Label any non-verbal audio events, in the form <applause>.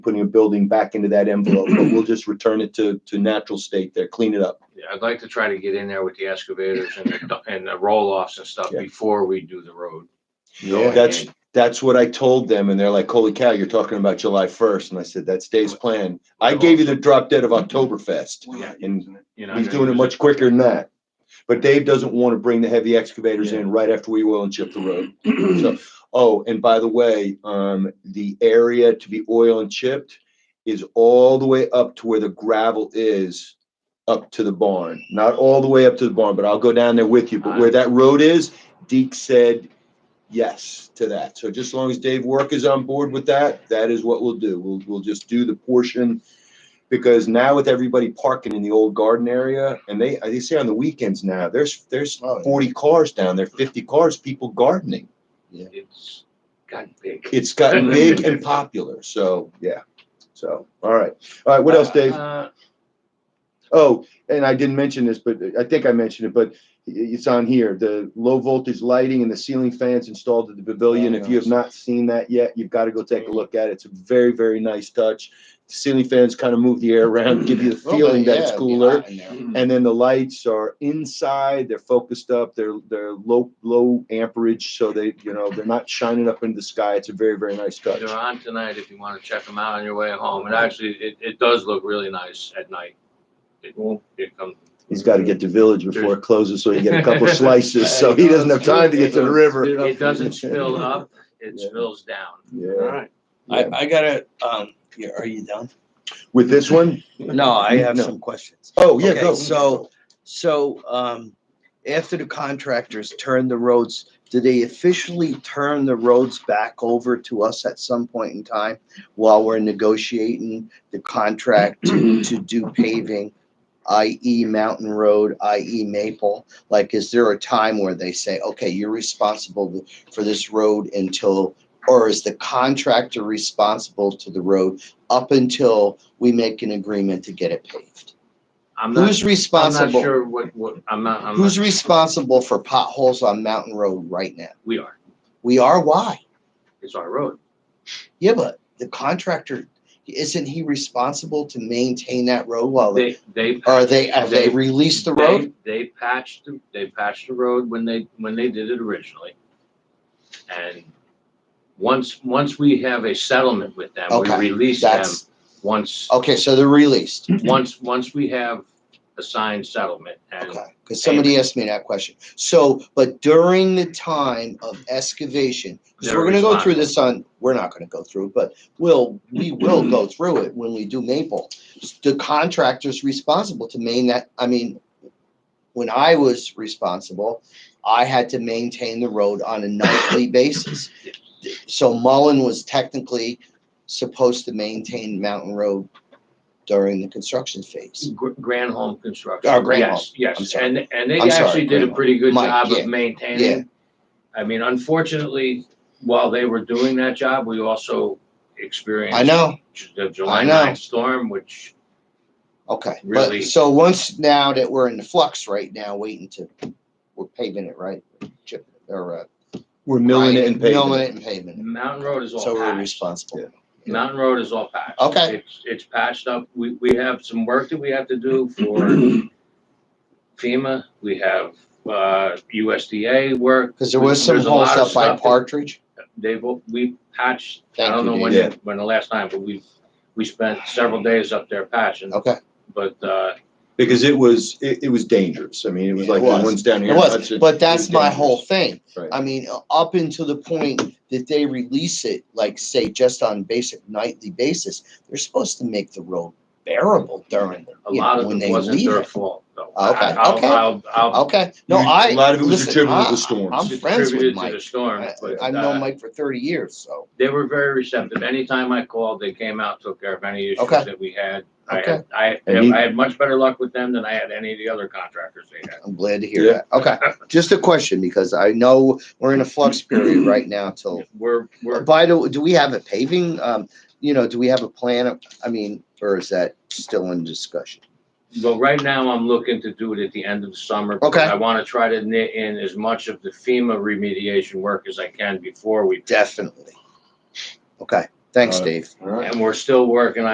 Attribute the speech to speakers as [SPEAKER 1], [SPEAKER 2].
[SPEAKER 1] putting a building back into that envelope, but we'll just return it to, to natural state there, clean it up.
[SPEAKER 2] Yeah, I'd like to try to get in there with the excavators and the, du- and the roll-offs and stuff
[SPEAKER 1] Yeah.
[SPEAKER 2] before we do the road.
[SPEAKER 1] That's, that's what I told them and they're like, holy cow, you're talking about July first. And I said, that's Dave's plan. I gave you the drop dead of Oktoberfest.
[SPEAKER 3] We're not
[SPEAKER 1] And
[SPEAKER 3] using it.
[SPEAKER 2] You know,
[SPEAKER 1] He's
[SPEAKER 2] and-
[SPEAKER 1] doing it much quicker than that. But Dave doesn't want to bring the heavy excavators in right after we oil and chip the road. So, oh, and by the way, um, the area to be oil and chipped is all the way up to where the gravel is up to the barn. Not all the way up to the barn, but I'll go down there with you. But where that road is, Deke said yes to that. So just as long as Dave Work is on board with that, that is what we'll do. We'll, we'll just do the portion because now with everybody parking in the old garden area, and they they say on the weekends now, there's there's
[SPEAKER 4] Oh, yeah.
[SPEAKER 1] forty cars down there, fifty cars, people gardening.
[SPEAKER 2] It's gotten big.
[SPEAKER 1] It's gotten big and popular. So yeah. So all right, all right. What else, Dave?
[SPEAKER 2] Uh,
[SPEAKER 1] Oh, and I didn't mention this, but I think I mentioned it, but it's on here. The low voltage lighting and the ceiling fans installed at the pavilion. If you have not seen that yet, you've got to go take a look at it. It's a very, very nice touch. Ceiling fans kind of move the air around, give you the feeling that it's cooler. and then the lights are inside they're focused up they're they're low low amperage so they you know they're not shining up into the sky it's a very very nice touch
[SPEAKER 2] They're on tonight if you want to check them out on your way home. And actually, it, it does look really nice at night. It won't, it comes.
[SPEAKER 1] he's got to get to village before it closes so he can get a
[SPEAKER 3] <laughs>
[SPEAKER 1] couple slices <laughs> so he doesn't have time to get to the river
[SPEAKER 2] It doesn't spill up, it
[SPEAKER 1] Yeah.
[SPEAKER 2] spills down.
[SPEAKER 3] All
[SPEAKER 1] yeah.
[SPEAKER 3] right.
[SPEAKER 4] I, I gotta, um, yeah, are you done?
[SPEAKER 1] with this one
[SPEAKER 4] No, I have
[SPEAKER 1] No.
[SPEAKER 4] some questions.
[SPEAKER 1] oh yeah
[SPEAKER 4] Okay,
[SPEAKER 1] go.
[SPEAKER 4] So, so, um, after the contractors turn the roads, do they officially turn the roads back over to us at some point in time while we're negotiating the contract to, to do paving? i.e. Mountain Road, i.e. Maple, like, is there a time where they say, okay, you're responsible for this road until, or is the contractor responsible to the road up until we make an agreement to get it paved?
[SPEAKER 2] I'm not,
[SPEAKER 4] Who's
[SPEAKER 2] I'm not
[SPEAKER 4] responsible?
[SPEAKER 2] sure what, what, I'm not, I'm
[SPEAKER 4] Who's
[SPEAKER 2] not,
[SPEAKER 4] responsible for potholes on Mountain Road right now?
[SPEAKER 2] we are.
[SPEAKER 4] We are. Why?
[SPEAKER 2] It's our road.
[SPEAKER 4] Yeah, but the contractor isn't he responsible to maintain that road while they,
[SPEAKER 2] They, they.
[SPEAKER 4] are they have they, released the road?
[SPEAKER 2] They they patched, the- they patched the road when they, when they did it originally. And once, once we have a settlement with them, we
[SPEAKER 4] Okay,
[SPEAKER 2] release them,
[SPEAKER 4] That's
[SPEAKER 2] once,
[SPEAKER 4] okay. So they're released.
[SPEAKER 2] once, once we have a signed settlement and
[SPEAKER 4] Okay, because somebody asked me that question. So, but during the time of excavation, because
[SPEAKER 2] They're
[SPEAKER 4] we're gonna go through this on, we're not gonna go through it, but we'll, we will go through it when we do Maple. The contractor's responsible to main that, I mean, when I was responsible, I had to maintain the road on a nightly basis. So Mullen was technically supposed to maintain Mountain Road during the construction phase.
[SPEAKER 2] Gr- Granholm Construction.
[SPEAKER 4] Oh, Granholm.
[SPEAKER 2] Yes,
[SPEAKER 4] I'm
[SPEAKER 2] Yes,
[SPEAKER 4] sorry.
[SPEAKER 2] and, and they
[SPEAKER 4] I'm sorry,
[SPEAKER 2] actually did a
[SPEAKER 4] Granholm.
[SPEAKER 2] pretty good
[SPEAKER 4] Mike,
[SPEAKER 2] job
[SPEAKER 4] yeah,
[SPEAKER 2] of
[SPEAKER 4] yeah.
[SPEAKER 2] maintaining. I mean, unfortunately, while they were doing that job, we also experienced.
[SPEAKER 4] I know.
[SPEAKER 2] The July
[SPEAKER 4] I know.
[SPEAKER 2] 9th storm, which,
[SPEAKER 4] Okay,
[SPEAKER 2] Really-
[SPEAKER 4] but so once now that we're in the flux right now, waiting to, we're paving it, right? Chip- Or, uh.
[SPEAKER 1] we're milling it
[SPEAKER 4] grinding-
[SPEAKER 1] and paving
[SPEAKER 4] Milling
[SPEAKER 1] it.
[SPEAKER 4] it and paving it.
[SPEAKER 2] Mountain Road is
[SPEAKER 4] So
[SPEAKER 2] all
[SPEAKER 4] we're
[SPEAKER 2] patched.
[SPEAKER 4] responsible.
[SPEAKER 1] Yeah.
[SPEAKER 2] Mountain Road is all patched.
[SPEAKER 4] Okay.
[SPEAKER 2] It's, it's patched up. We, we have some work that we have to do
[SPEAKER 4] <clears throat>
[SPEAKER 2] for FEMA. We have, uh, USDA work.
[SPEAKER 4] Cause there was some
[SPEAKER 2] There's a lot
[SPEAKER 4] holes
[SPEAKER 2] of
[SPEAKER 4] up by
[SPEAKER 2] stuff that-
[SPEAKER 4] Partridge.
[SPEAKER 2] they've, we patched, I
[SPEAKER 4] Thank
[SPEAKER 2] don't
[SPEAKER 4] you,
[SPEAKER 2] know when,
[SPEAKER 1] Dave.
[SPEAKER 2] when the last time, but we've, we spent several days up there patching,
[SPEAKER 4] Okay,
[SPEAKER 2] but, uh,
[SPEAKER 1] because it was it, it was dangerous i mean it was
[SPEAKER 4] It
[SPEAKER 1] like
[SPEAKER 4] was.
[SPEAKER 1] the ones down here
[SPEAKER 4] it
[SPEAKER 1] in
[SPEAKER 4] was,
[SPEAKER 1] Hudson, it
[SPEAKER 4] but
[SPEAKER 1] was
[SPEAKER 4] that's my whole
[SPEAKER 1] dangerous.
[SPEAKER 4] thing.
[SPEAKER 1] Right.
[SPEAKER 4] I mean, up until the point that they release it, like say, just on basic nightly basis, they're supposed to make the road bearable during,
[SPEAKER 2] a
[SPEAKER 4] you
[SPEAKER 2] lot
[SPEAKER 4] know,
[SPEAKER 2] of
[SPEAKER 4] when
[SPEAKER 2] it
[SPEAKER 4] they
[SPEAKER 2] wasn't
[SPEAKER 4] leave
[SPEAKER 2] their
[SPEAKER 4] it.
[SPEAKER 2] fault, though.
[SPEAKER 4] Okay,
[SPEAKER 2] I- I'll-
[SPEAKER 4] okay.
[SPEAKER 2] I'll, I'll
[SPEAKER 4] Okay, no,
[SPEAKER 1] You-
[SPEAKER 4] I.
[SPEAKER 1] a lot of it was
[SPEAKER 4] listen,
[SPEAKER 1] attributable to
[SPEAKER 4] I-
[SPEAKER 1] storms.
[SPEAKER 4] I'm friends
[SPEAKER 2] attribute it
[SPEAKER 4] with
[SPEAKER 2] to the
[SPEAKER 4] Mike.
[SPEAKER 2] storm,
[SPEAKER 4] I-
[SPEAKER 2] but,
[SPEAKER 4] I've
[SPEAKER 2] uh,
[SPEAKER 4] known Mike for thirty years, so.
[SPEAKER 2] they were very receptive. Anytime I called, they came out, took care of any issues
[SPEAKER 4] Okay.
[SPEAKER 2] that we had. I
[SPEAKER 4] Okay.
[SPEAKER 2] had, I,
[SPEAKER 1] And you-
[SPEAKER 2] I had much better luck with them than I had any of the other contractors they had.
[SPEAKER 4] I'm glad to hear
[SPEAKER 1] Yeah.
[SPEAKER 4] that. Okay, just a question because I know we're in a flux period right now till.
[SPEAKER 2] We're, we're,
[SPEAKER 4] By the, way, do we have a paving? Um, you know, do we have a plan? of- I mean, or is that still in discussion?
[SPEAKER 2] well, right now I'm looking to do it at the end of the summer. because
[SPEAKER 4] Okay.
[SPEAKER 2] I want to try to knit in as much of the FEMA remediation work as I can before we
[SPEAKER 4] Definitely. Okay, Thanks,
[SPEAKER 1] Got it.
[SPEAKER 4] Dave.
[SPEAKER 1] All right.
[SPEAKER 2] And we're still working on